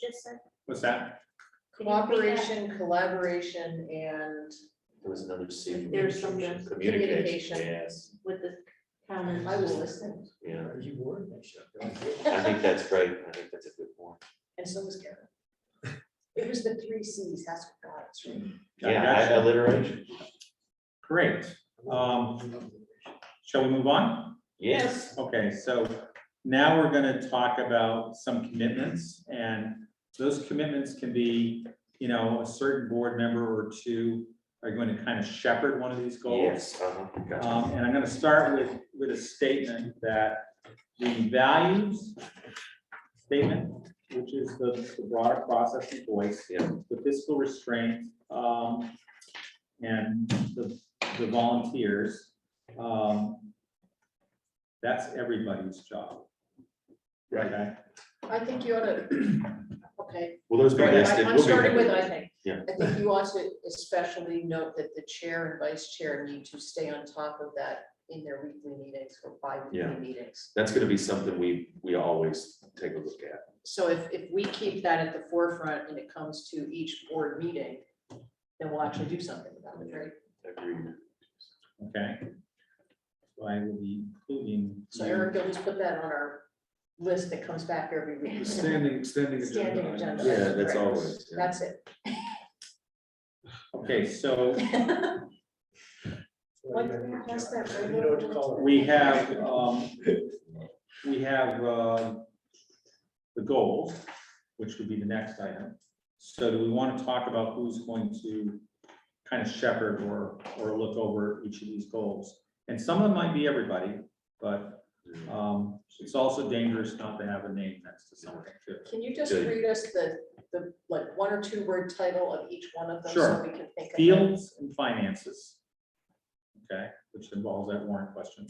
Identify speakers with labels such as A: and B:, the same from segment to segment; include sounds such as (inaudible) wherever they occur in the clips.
A: just said?
B: What's that?
A: Did you read that?
C: Cooperation, collaboration, and
D: There was another C.
A: There's some good
C: communication.
D: Communication, yes,
A: With the town and
C: I was listening,
D: yeah,
E: Are you worried? Nice shot, bro.
D: I think that's great, I think that's a good one.
C: and so was Karen. It was the three Cs, that's what got us, right?
B: I
D: Yeah, I-
B: gotcha.
D: alliteration,
B: Great. Um, Shall we move on?
D: yes,
B: Okay, so now we're gonna talk about some commitments and those commitments can be, you know, a certain board member or two are going to kind of shepherd one of these goals.
D: yes, uh-huh, gotcha.
B: Um, and I'm gonna start with, with a statement that the values statement, which is the the broader process and voice.
D: Yeah.
B: The fiscal restraint, um, and the, the volunteers, um, that's everybody's job.
D: Right.
B: Okay?
C: I think you ought to, (clears throat) okay.
D: Well, those
C: Right,
D: guys
C: I-
D: did,
C: I'm
D: we'll be
C: starting
D: back.
C: with, I think.
D: Yeah.
C: I think you ought to especially note that the chair and vice chair need to stay on top of that in their weekly meetings or
D: Yeah.
C: bi-weekly meetings.
D: That's gonna be something we, we always take a look at,
C: So if, if we keep that at the forefront and it comes to each board meeting, then we'll actually do something about it, right?
D: agreed.
B: Okay? So I will be including.
C: So Eric, you'll just put that on our list that comes back every week.
E: Standing, standing.
C: Standing agenda.
D: Yeah, that's
C: Right.
D: always, yeah.
C: That's it.
B: Okay, so
C: What- what's that right
E: You know what to call it.
B: we have, um, we have, uh, the goals, which would be the next item. So do we want to talk about who's going to kind of shepherd or, or look over each of these goals? And some of them might be everybody, but, um, it's also dangerous not to have a name next to something too.
C: Can you just
D: Good.
C: read us the, the, like, one or two word title of each one of them?
B: Sure.
C: So we can think of. them?
B: Fields and finances. Okay, which involves that warrant question.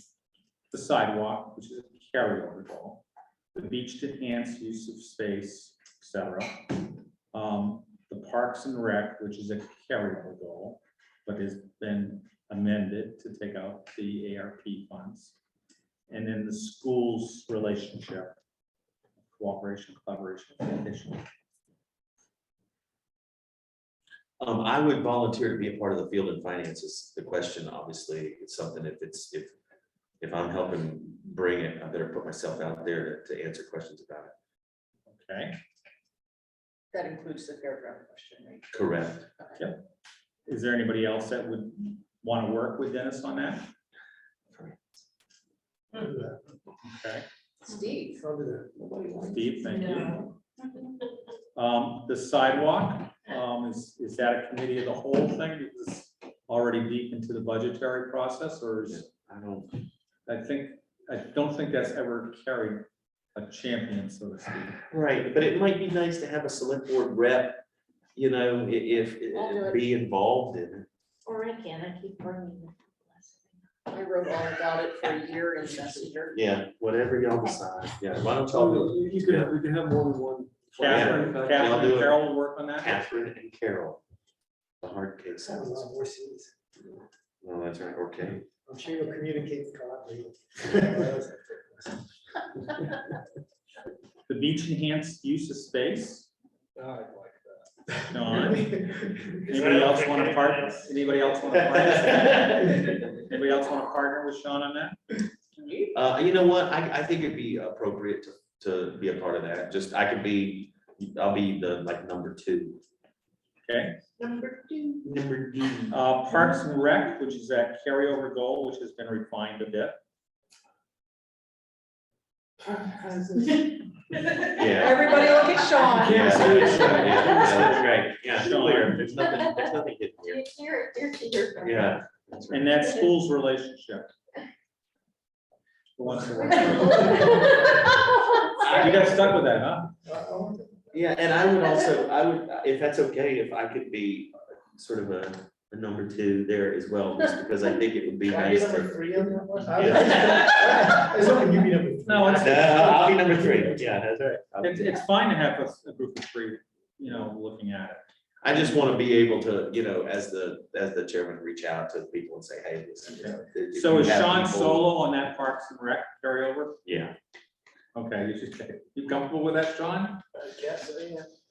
B: The sidewalk, which is a carryover goal. The beach to enhance use of space, et cetera. Um, the parks and rec, which is a carryover goal, but has been amended to take out the ARP funds. And then the schools relationship, cooperation, collaboration, communication.
D: Um, I would volunteer to be a part of the field and finances. The question, obviously, it's something if it's, if, if I'm helping bring it, I better put myself out there to, to answer questions about it.
B: Okay,
C: That includes the fairground question, right?
D: Correct.
B: is there anybody else that would want to work with Dennis on that? Okay,
C: Steve,
E: Over there.
B: Steve, thank you. Um, the sidewalk, um, is, is that a committee of the whole thing? Is this already deep into the budgetary process or is,
D: I don't,
B: I think, I don't think that's ever carried a champion, so to speak.
D: right, but it might be nice to have a select board rep, you know, i- if,
C: I'll do it.
D: be involved in
A: Or I can, I keep burning it.
C: I wrote all about it for a year in
D: it.
C: Messenger.
D: Yeah, whatever y'all decide. Yeah, why don't y'all do it?
E: You could, have- we could have more than one.
B: Catherine,
E: Yeah.
B: Catherine
D: do
B: and
D: it.
B: Carol will work on that?
D: Catherine and Carol. The hard case.
E: Sounds a lot
D: No,
E: more serious.
D: that's right, okay.
E: I'm sure you'll communicate collaboratively.
B: The beach enhanced use of space?
E: I like that.
B: Don,
D: (laughs)
B: anybody
E: (laughs)
B: else want to partner? Anybody else
D: (laughs)
E: Uh,
B: want to partner? Anybody else want to partner with Sean on that?
D: (laughs) Uh, you know what, I, I think it'd be appropriate to, to be a part of that, just, I could be, I'll be the, like, number two.
B: Okay,
C: Number two.
D: Number D.
B: uh, Parks and Rec, which is that carryover goal, which has been refined a bit.
D: Yeah.
C: Everybody look at Sean.
D: Yeah, so it's, uh, yeah, yeah, that's right, yeah,
B: Sean.
D: clear, there's nothing, there's nothing hidden here,
A: You're, you're, you're.
D: yeah.
B: And that school's relationship. Who wants to work? (laughs)
A: (laughs)
B: You got stuck with that, huh?
E: oh,
D: Yeah, and I would also, I would, if that's okay, if I could be sort of a, a number two there as well, (laughs) just because I think it would be nice to.
E: three on that one?
D: Yeah.
E: As long as you be number three.
B: No, it's-
D: No, (laughs) I'll be number three, yeah, that's right. I'll be-
B: It's, it's fine to have a, a group of three, you know, looking at it.
D: I just want to be able to, you know, as the, as the chairman, reach out to people and say, hey, listen. you know, if you
B: So is
D: have
B: Sean
D: people-
B: solo on that Parks and Rec carryover?
D: Yeah,
B: Okay, you should, you comfortable with that, Sean?
E: I guess, yeah.